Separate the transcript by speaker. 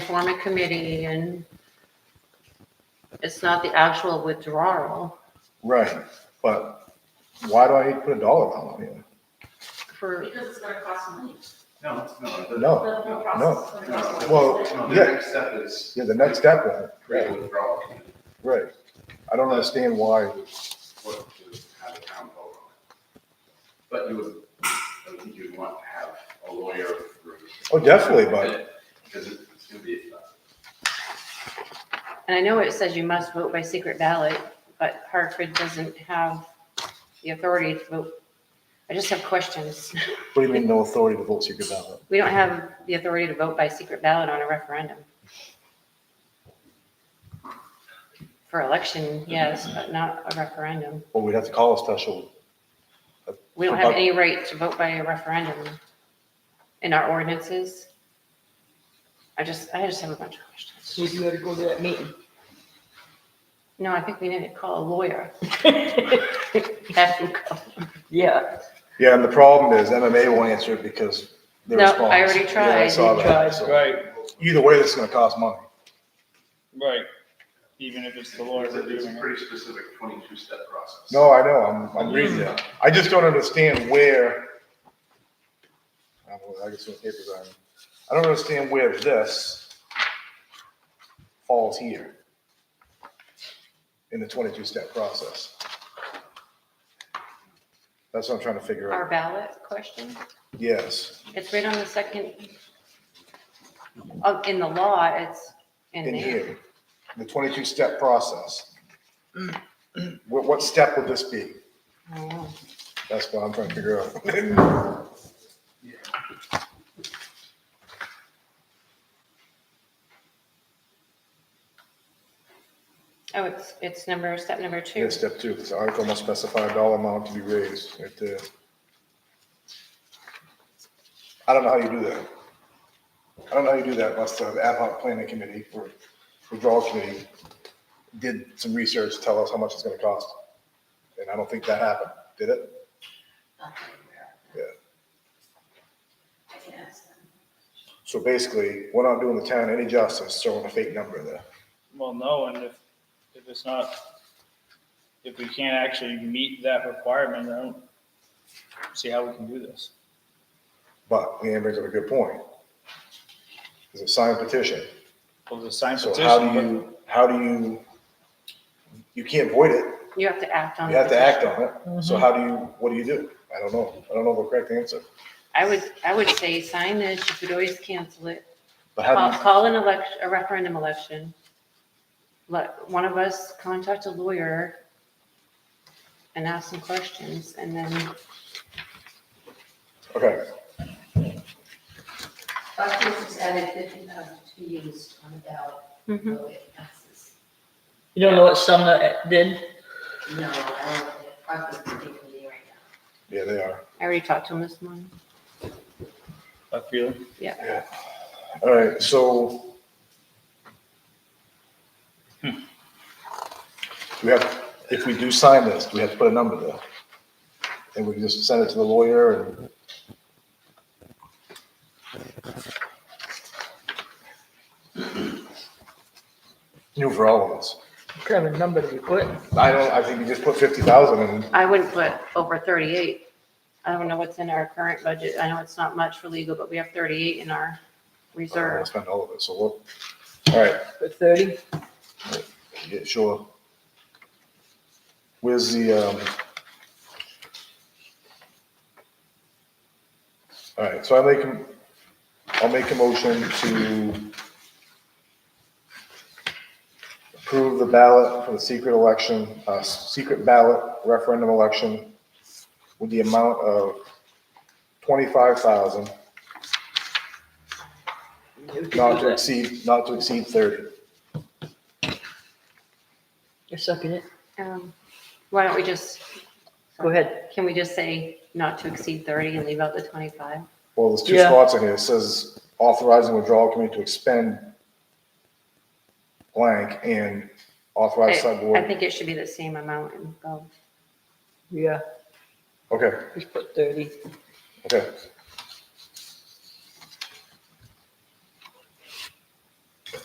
Speaker 1: form a committee and it's not the actual withdrawal
Speaker 2: Right, but why do I need to put a dollar amount on here?
Speaker 1: for,
Speaker 3: Because it's gonna cost money.
Speaker 4: No, no. the-
Speaker 3: The
Speaker 2: No,
Speaker 3: whole process is gonna cost money.
Speaker 2: Well,
Speaker 4: No, the
Speaker 2: yeah.
Speaker 4: next step is.
Speaker 2: yeah, the next step, uh,
Speaker 4: Create a withdrawal committee,
Speaker 2: right. I don't understand why,
Speaker 4: what to have a town vote on it. But you would, I think you'd want to have a lawyer. review it,
Speaker 2: oh, definitely, but,
Speaker 4: Because it's gonna be,
Speaker 1: and I know it says you must vote by secret ballot, but Hartford doesn't have the authority to vote. I just have questions.
Speaker 2: what do you mean no authority to vote secret ballot?
Speaker 1: We don't have the authority to vote by secret ballot on a referendum. For election, yes, but not a referendum.
Speaker 2: Well, we'd have to call a special,
Speaker 1: We don't have any right to vote by a referendum in our ordinances. I just, I just have a bunch of questions.
Speaker 5: So you gotta go to that meeting.
Speaker 1: No, I think we need to call a lawyer. Have him call.
Speaker 5: Yeah,
Speaker 2: yeah, and the problem is MMA won't answer it because their
Speaker 1: No, I
Speaker 2: response.
Speaker 1: already
Speaker 2: Yeah,
Speaker 1: tried.
Speaker 2: saw
Speaker 5: You
Speaker 2: that,
Speaker 5: tried,
Speaker 2: so
Speaker 6: Right,
Speaker 2: Either way, this is gonna cost money.
Speaker 6: right. Even if it's the lawyer
Speaker 4: it's a- it's
Speaker 6: reviewing
Speaker 4: a
Speaker 6: it.
Speaker 4: pretty specific twenty-two step process.
Speaker 2: No, I know, I'm, I'm reading it. I just don't understand where. I don't know, I guess some papers are, I don't understand where this falls here in the twenty-two step process. That's what I'm trying to figure
Speaker 1: Our
Speaker 2: out.
Speaker 1: ballot question?
Speaker 2: Yes,
Speaker 1: It's right on the second. Oh, in the law, it's in
Speaker 2: in
Speaker 1: there.
Speaker 2: here, the twenty-two step process. What, what step would this be?
Speaker 1: I don't know.
Speaker 2: That's what I'm trying to figure out.
Speaker 1: Oh, it's, it's number, step number two.
Speaker 2: Yeah, step two, this article must specify a dollar amount to be raised, right there. I don't know how you do that. I don't know how you do that unless the ad hoc planning committee or withdrawal committee did some research, to tell us how much it's gonna cost. And I don't think that happened, did it? Yeah.
Speaker 3: I can ask them.
Speaker 2: So basically, we're not doing the town any justice throwing a fake number there.
Speaker 6: Well, no, and if, if it's not, if we can't actually meet that requirement, I don't see how we can do this.
Speaker 2: But Leanne brings up a good point. It's a signed petition.
Speaker 6: Well, the sign
Speaker 2: So how do
Speaker 6: petition,
Speaker 2: you, how do you, you can't void it.
Speaker 1: You have to act on.
Speaker 2: You have to
Speaker 1: the
Speaker 2: act
Speaker 1: petition.
Speaker 2: on it. So how do you, what do you do? I don't know. I don't know the correct answer.
Speaker 1: I would, I would say sign this, you could always cancel it.
Speaker 2: But
Speaker 1: Call,
Speaker 5: Um,
Speaker 2: how do
Speaker 1: call an election, a referendum election. Let, one of us contact a lawyer and ask some questions and then,
Speaker 2: you, okay,
Speaker 7: Buckley's has added fifty thousand to be used on the ballot,
Speaker 5: Mm-hmm.
Speaker 3: Mm-hmm.
Speaker 1: Mhm.
Speaker 7: so it passes.
Speaker 5: you don't know what Sumner did?
Speaker 7: No, I don't think Buckley's taking me right now.
Speaker 2: yeah, they are.
Speaker 1: I already talked to him this morning.
Speaker 6: I feel,
Speaker 2: All right, so. hmm. We have, if we do sign this, do we have to put a number there? And we can just send it to the lawyer and. New for all of us.
Speaker 5: What kind of number did you put?
Speaker 2: I don't, I think you just put fifty thousand and
Speaker 1: I wouldn't put over thirty-eight. I don't know what's in our current budget. I know it's not much for legal, but we have thirty-eight in our
Speaker 2: I don't wanna
Speaker 1: reserve.
Speaker 2: spend all of it, so we'll, all right,
Speaker 5: Put thirty?
Speaker 2: yeah, sure. Where's the, um? All right, so I make, a- I'll make a motion to approve the ballot for the secret election, uh, secret ballot referendum election with the amount of twenty-five thousand, not to exceed, not to exceed thirty.
Speaker 5: You're sucking it.
Speaker 1: Um, Why don't we just,
Speaker 5: Go ahead.
Speaker 1: can we just say not to exceed thirty and leave out the twenty-five?
Speaker 2: Well, there's two
Speaker 5: Yeah.
Speaker 2: spots in here. It says authorizing withdrawal committee to expend blank and authorize
Speaker 1: I
Speaker 2: select board.
Speaker 1: I think it should be the same amount in both.
Speaker 5: Yeah,
Speaker 2: Okay,
Speaker 5: just put thirty.
Speaker 2: okay.